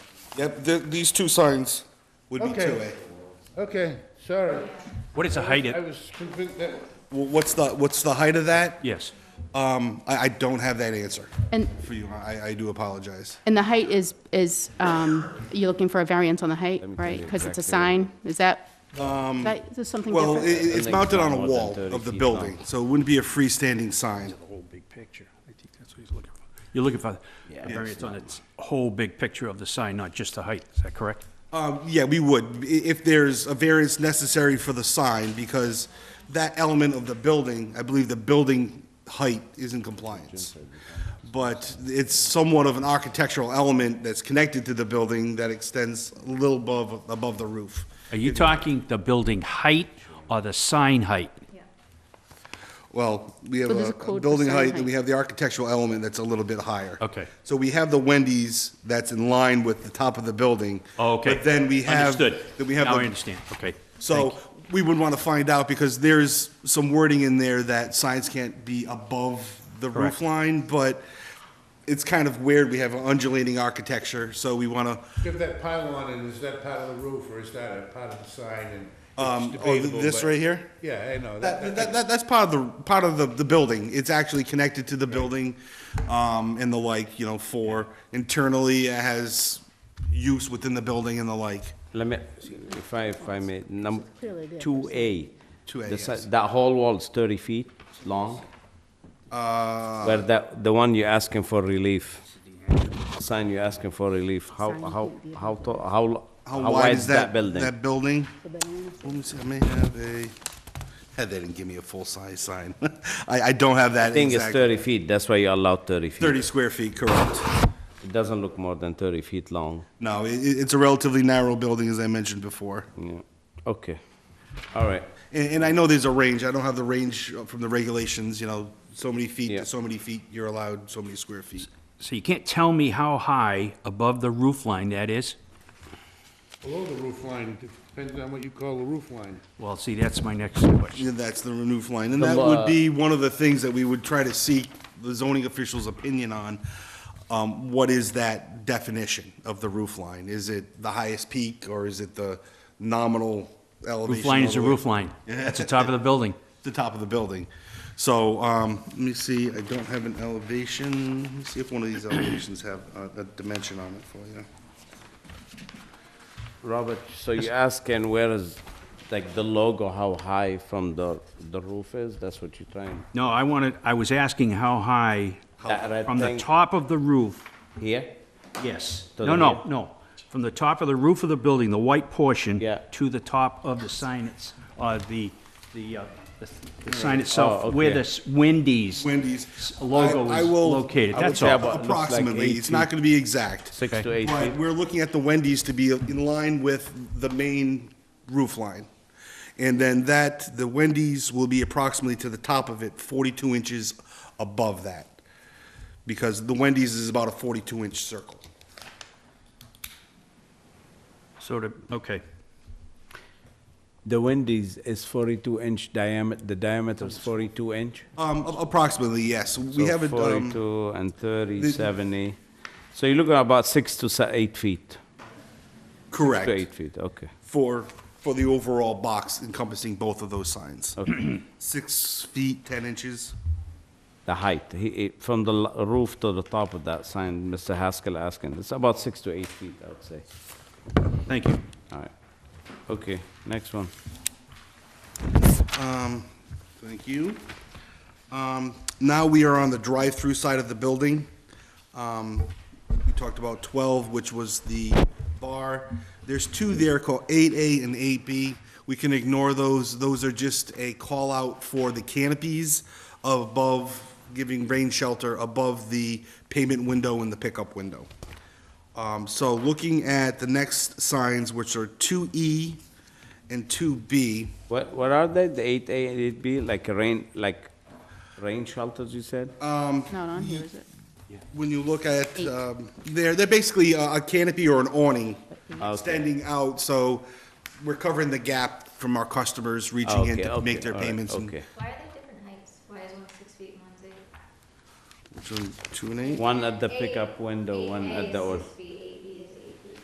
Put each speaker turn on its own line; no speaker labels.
Yep, th- these two signs would be
Okay.
2A.
Okay, sorry.
What is the height
I
of,
was confused. that-
Wh- What's the, what's the height of that?
yes,
Um, I, I don't have that answer
And,
for you. I, I do apologize.
and the height is, is, um, you're looking for a variance on the height, right? Because it's a sign, is that, is that is this something
Um, Well, it,
different?
it's mounted on a wall of the building, so it wouldn't be a freestanding sign.
whole big picture. I think that's what he's looking for.
you're looking for a variance on its whole big picture of the sign, not just the height, is that correct?
Um, yeah, we would, I- if there's a variance necessary for the sign, because that element of the building, I believe the building height is in compliance. But it's somewhat of an architectural element that's connected to the building that extends a little above, above the roof.
Are you talking the building height or the sign height?
Well, we have
So there's
a
a code
a
for
building
sign
height, and we
height.
have the architectural element that's a little bit higher.
Okay.
So we have the Wendy's that's in line with the top of the building.
Oh, Okay.
But then we have.
Understood.
Then we have.
Now
the-
I understand, okay.
So we would want to find out because there's some wording in there that signs can't be above the roof
Correct.
line, but it's kind of weird. We have an undulating architecture, so we oh, want to,
Give that pylon, and is that part of the roof, or is that a part of the sign? And
um,
it's
oh,
debatable,
this
but-
right here?
Yeah, I know.
That, that, that, that's part of the, part of the, the building. It's actually connected to the building, um, and the like, you know, for internally it has use within the building and the like.
Let me, if I, if I may, number, two A.
2A,
The si-
yes.
That whole wall's thirty feet long? Uh. Where that, the one you're asking for relief, sign you're asking for relief, how,
Sign
how,
can't be
how, to- how, lo-
How wide is that,
building?
that building? Let me see, I may have a, had they didn't give me a full-size sign. I, I don't have
I
that
think it's
exact.
thirty feet, that's why you allow thirty feet.
Thirty square feet, correct.
It doesn't look more than thirty feet long,
No, i i- it's a relatively narrow building, as I mentioned before.
yeah, okay, all right,
And, and I know there's a range, I don't have the range from the regulations, you know, so many feet
Yeah.
to so many feet, you're allowed so many square feet.
So you can't tell me how high above the roof line that is?
Below the roof line, depends on what you call the roof line.
Well, see, that's my next question.
Yeah, that's the roof line, and
The
that
lo-
would be one of the things that we would try to seek the zoning official's opinion on. Um, what is that definition of the roof line? Is it the highest peak, or is it the nominal elevation?
Roof line
all
is
the
a
way-
roof line, that's the top of the building.
The top of the building. So, um, let me see, I don't have an elevation, let me see if one of these elevations have a, a dimension on it for you.
Robert, so you're asking where is, like, the logo, how high from the, the roof is, that's what you're trying,
No, I wanted, I was asking how high,
That red
from the
thing.
top of the roof,
here?
yes.
To
No,
the
no,
roof.
no, from the top of the roof of the building, the white portion.
Yeah.
To the top of the sign, it's, uh, the, the, uh, the- the sign itself,
Oh,
where
okay.
this Wendy's.
Wendy's.
Logo
I- I
is
will-
located,
I will
that's
check
all.
but it looks like
Approximately,
eight
it's not
feet.
gonna be exact.
Six to eight
But
feet.
we're looking at the Wendy's to be in line with the main roof line. And then that, the Wendy's will be approximately to the top of it, 42 inches above that. Because the Wendy's is about a 42-inch circle.
Sort of, okay.
The Wendy's is 42 inch diameter, the diameter is 42 inch?
Um, a- Approximately, yes. We
So
haven't, um,
42 and 30,
the-
70. So you're looking about six to se- eight feet? Six to
correct,
eight feet, okay.
for, for the overall box encompassing both of those signs. Six feet, 10 inches.
The height, he- he- from the l- roof to the top of that sign, Mr. Haskell asking, it's about six to eight feet, I would say.
Thank you.
All right. Okay, next one.
Um, Thank you. Um, Now we are on the drive-through side of the building. Um, We talked about 12, which was the bar. There's two there called 8A and 8B. We can ignore those. Those are just a call-out for the canopies above, giving rain shelter above the payment window and the pickup window. Um, So looking at the next signs, which are 2E and 2B,
What, what are they, the 8A and 8B, like a rain, like rain shelters, you said?
Not on here, is it?
when you look at, um, they're, they're basically a a canopy or an awning
Oh, Okay.
extending out, so we're covering the gap from our customers reaching in
Ah, Oh, Okay,
to make
okay,
their
all right,
payments. and-
Okay.
Why are they different heights? Why is one six feet and one's eight?
Which one, Two and eight?
One at the pickup window,
Eight
one
A
at the,
is
or-
six feet.